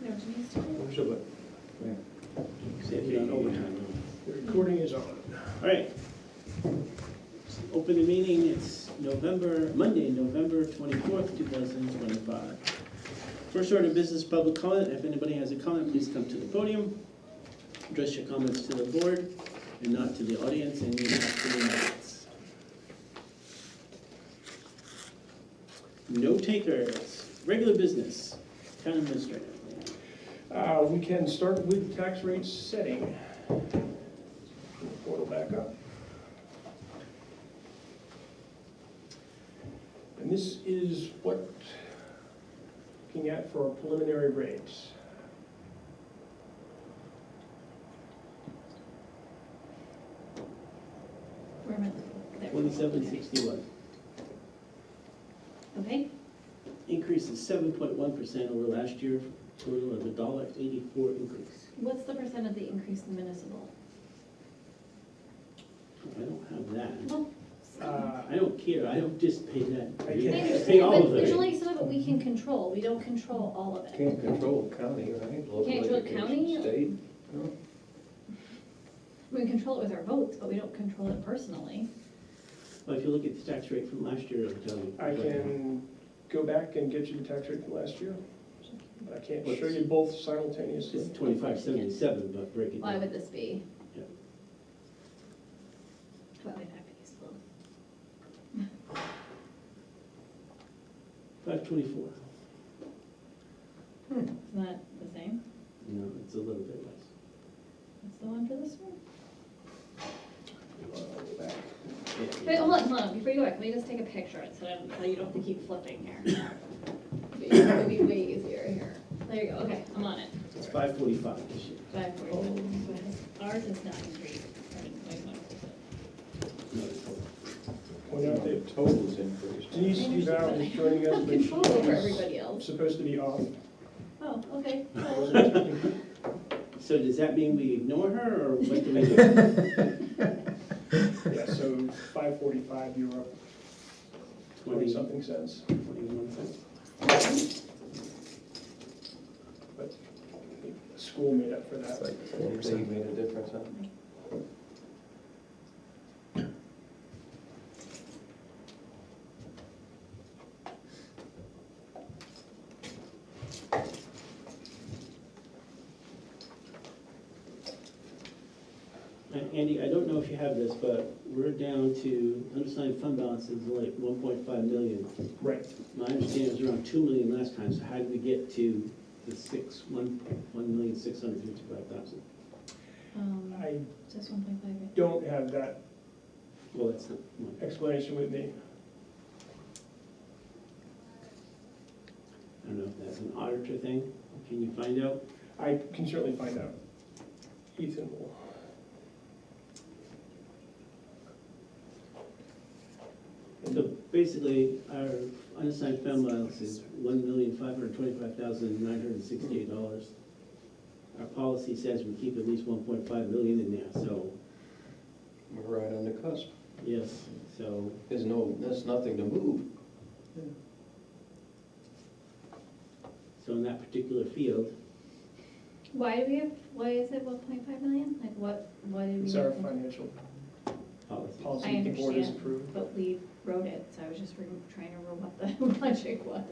No, Denise did it. So, but, yeah. See if you're on overtime. The recording is on. All right. Open the meeting, it's November, Monday, November twenty-fourth, two thousand twenty-five. First order of business, public comment, if anybody has a comment, please come to the podium. Address your comments to the board and not to the audience, and you have to minutes. No takers, regular business, town administrator. Uh, we can start with tax rate setting. Portal back up. And this is what, looking at for our preliminary rates. Where am I looking? There. Twenty-seven sixty-one. Okay, increase is seven point one percent over last year, total of a dollar eighty-four increase. what's the percent of the increase in municipal? I don't have that. Well, Uh, I don't care, I don't just pay that. I can't- I Pay understand, all but of there's it. only some of it we can control, we don't control all of it. Can't control county, right? Local Can't control education, county? State, We can control it with our votes, but we don't control it personally. Well, if you look at the tax rate from last year, it'll tell you. I can go back and get you the tax rate from last year. I can't show What's- you both simultaneously. It's twenty-five seventy-seven, but break it Why down. would this be? Yeah. How about we not be useful? Five twenty-four. Isn't that the same? No, it's a little bit less. That's the one for this one? Uh, back. Yeah, Wait, yeah. hold on, hold on, before you go back, let me just take a picture, so I don't, so you don't have to keep flipping here. It'd be way easier here. There you go, okay, I'm on it. It's five forty-five this year. Five forty-one. Ours is not increased. It's No, it's total. Point out that totals increased. Denise Duval is joining us, but Control over she's everybody else. supposed to be off. Oh, okay. I wasn't expecting So does that mean we ignore her, or what do we do? Yeah, so five forty-five, you're up twenty-something Twenty-something, cents. twenty-one cents? The School made up for It's that. like four percent made a difference, huh? Uh, Andy, I don't know if you have this, but we're down to, undersigned fund balance is like one point five million. Right. My understanding is around two million last time, so how did we get to the six, one, one million, six hundred fifty-five thousand? Um, I just one point five, don't have that Well, that's not, well, explanation with me. I don't know if that's an auditor thing, can you find out? I can certainly find out. Ethan will. So basically, our unassigned fund balance is one million, five hundred twenty-five thousand, nine hundred sixty-eight dollars. Our policy says we keep at least one point five million in there, so, We're right on the cusp. yes, so There's no, there's nothing to move. So in that particular field, Why do we have, why is it one point five million? Like what, why did we? It's our make it? financial policy, policy the board has understand. approved. But we wrote it, so I was just re- trying to remember what the logic was.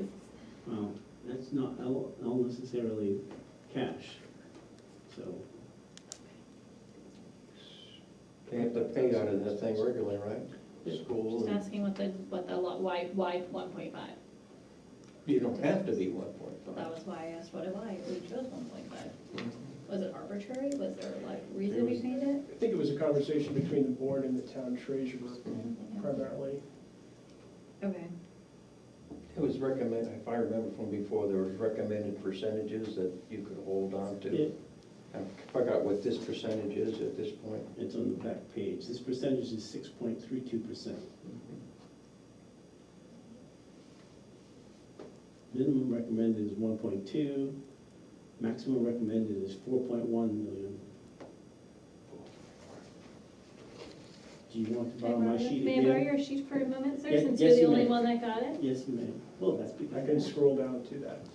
well, that's not all all necessarily cash, so. They have to pay out of that thing regularly, right? School, Just and- asking what the, what the, lo- why, why one point five? you don't have to be one But point that five. was why I asked what it why, we chose one point five. Mhm. Was it arbitrary? Was there like reason we was- made it? I think it was a conversation between the board and the town treasurer primarily. Okay. It was recommended, if I remember from before, there was recommended percentages that you could hold on Yeah. to. I forgot what this percentage is at this point. It's on the back page, this percentage is six point three two percent. Minimum recommended is one point two, maximum recommended is four point one million. Do you want to borrow my sheet May I borrow again? your sheet for a moment, sir, Yeah, since yes, you're the you only may. one that got it? Yes, you may. Well, that's I can because, scroll down to that.